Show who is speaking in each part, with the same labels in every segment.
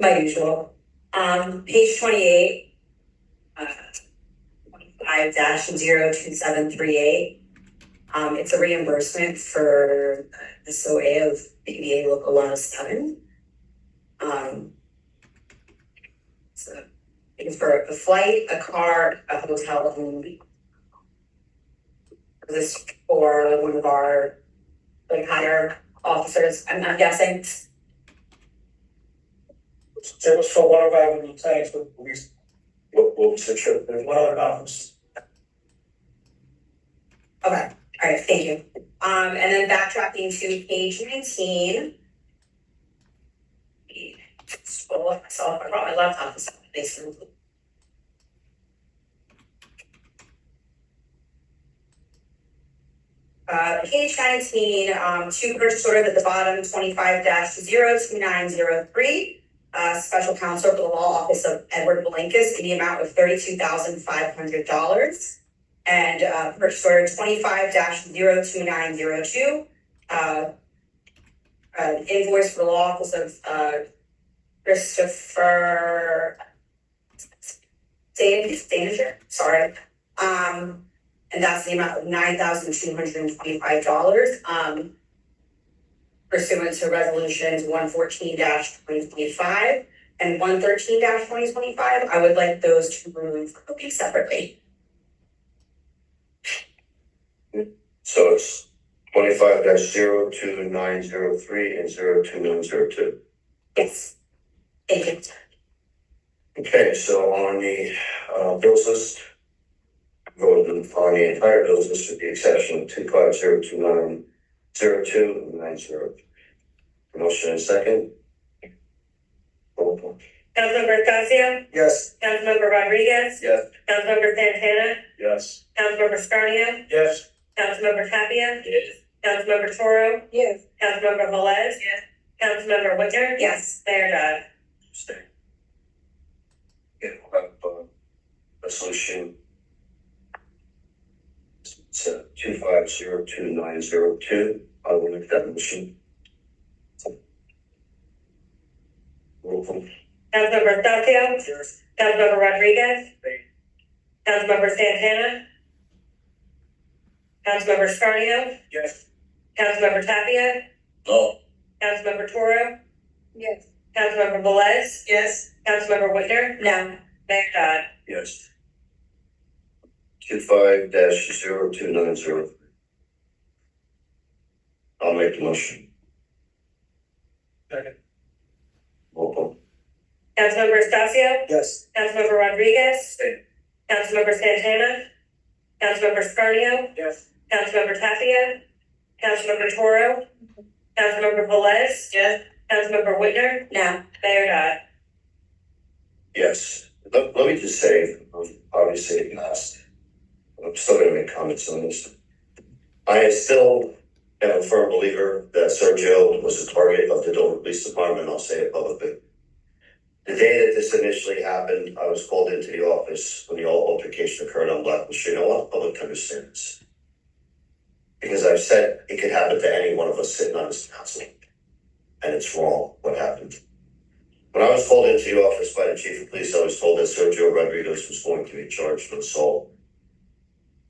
Speaker 1: my usual. Um, page twenty-eight. uh, Twenty-five dash zero two seven three eight. Um, it's a reimbursement for uh, SOA of PBA local law seven. Um. So, it's for a flight, a car, a hotel, a room. This is for one of our, like higher officers, I'm, I'm guessing.
Speaker 2: It was for one of our lieutenants, but we,
Speaker 3: What, what was the trip?
Speaker 2: there's one other office.
Speaker 1: Okay, all right, thank you. Um, and then backtracking to page nineteen. Scroll up myself, Oh, I brought my laptop this morning, thanks for. Uh, page nineteen, um, two purchase orders at the bottom, twenty-five dash zero two nine zero three. Uh, special counsel for the law office of Edward Blankus in the amount of thirty-two thousand five hundred dollars and uh, purchase order twenty-five 2902 Uh, uh, invoice for the law office of uh, Christopher Dan- Danger, sorry. Um, and that's the amount of nine thousand two hundred and twenty-five dollars. Um, pursuant to resolutions one fourteen twenty twenty-five and one thirteen twenty twenty-five, I would like those to move be separately.
Speaker 3: So it's twenty-five dash zero two nine zero three and zero two nine zero two.
Speaker 1: Yes. Thank you.
Speaker 3: Okay, so on the, uh, bills list, voted on the entire bills list with the exception of two five zero two nine zero two and nine zero. Motion and second. Roll call.
Speaker 4: Councilmember Thacia,
Speaker 2: Yes.
Speaker 4: Councilmember Rodriguez,
Speaker 3: Yes.
Speaker 4: Councilmember Santana,
Speaker 2: Yes.
Speaker 4: Councilmember Scarnio,
Speaker 2: Yes.
Speaker 4: Councilmember Tapia,
Speaker 3: Yes.
Speaker 4: Councilmember Toro,
Speaker 1: Yes.
Speaker 4: Councilmember Velez.
Speaker 1: Yes.
Speaker 4: Councilmember Whitner.
Speaker 1: Yes.
Speaker 4: Mayor Dodd.
Speaker 3: Stay. Yeah, we'll have, uh, resolution. So two five zero two nine zero two, I will make that motion. Roll call.
Speaker 4: Councilmember Thacia,
Speaker 2: Yes.
Speaker 4: Councilmember Rodriguez,
Speaker 2: Aye.
Speaker 4: Councilmember Santana, Councilmember Scarnio,
Speaker 2: Yes.
Speaker 4: Councilmember Tapia,
Speaker 3: No.
Speaker 4: Councilmember Toro,
Speaker 1: Yes.
Speaker 4: Councilmember Velez,
Speaker 1: Yes.
Speaker 4: Councilmember Whitner,
Speaker 1: No.
Speaker 4: Mayor Dodd.
Speaker 3: Yes. Two five dash zero two nine zero. I'll make the motion.
Speaker 2: Second.
Speaker 3: Roll call.
Speaker 4: Councilmember Estacio,
Speaker 2: Yes.
Speaker 4: Councilmember Rodriguez,
Speaker 2: Aye.
Speaker 4: Councilmember Santana, Councilmember Scarnio,
Speaker 2: Yes.
Speaker 4: Councilmember Tapia, Councilmember Toro, Councilmember Velez,
Speaker 1: Yes.
Speaker 4: Councilmember Whitner,
Speaker 1: No.
Speaker 4: Mayor Dodd.
Speaker 3: Yes, let, let me just say, um, obviously, last, I'm still gonna make comments on this. I am still am a firm believer that Sergio was the target of the Dover Police Department, I'll say it publicly. The day that this initially happened, I was called into the office when the altercation occurred on Blackwell Street, I want the public to understand this. Because I've said it could happen to any one of us sitting on this council, and it's wrong what happened. When I was called into the office by the chief of police, I was told that Sergio Rodriguez was going to be charged with assault.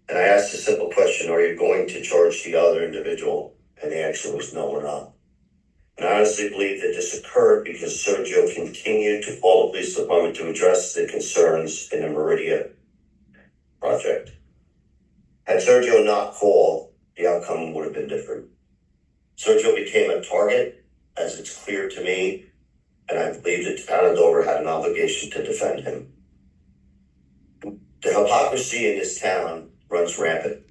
Speaker 3: And I asked a simple question, are you going to charge the other individual? And the answer was no, we're not. And I honestly believe that this occurred because Sergio continued to call the police department to address the concerns in the Meridia project. Had Sergio not called, the outcome would have been different. Sergio became a target, as it's clear to me and I believe that the town of Dover had an obligation to defend him. The hypocrisy in this town runs rampant.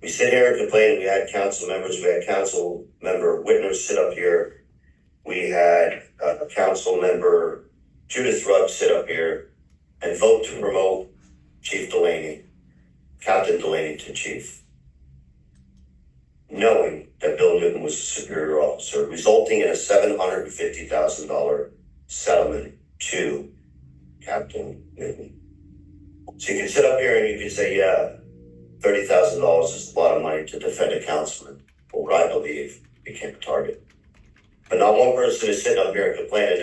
Speaker 3: We sit here and complain, we had council members, we had council member Whitner sit up here. We had uh, council member Judith Rugg sit up here and vote to promote Chief Delaney, Captain Delaney to chief. Knowing that Bill Newton was a superior officer, resulting in a seven hundred and fifty thousand dollar settlement to Captain Newton. So you can sit up here and you can say, yeah, thirty thousand dollars is a lot of money to defend a councilman, or I believe became a target. But not one person is sitting up here and complaining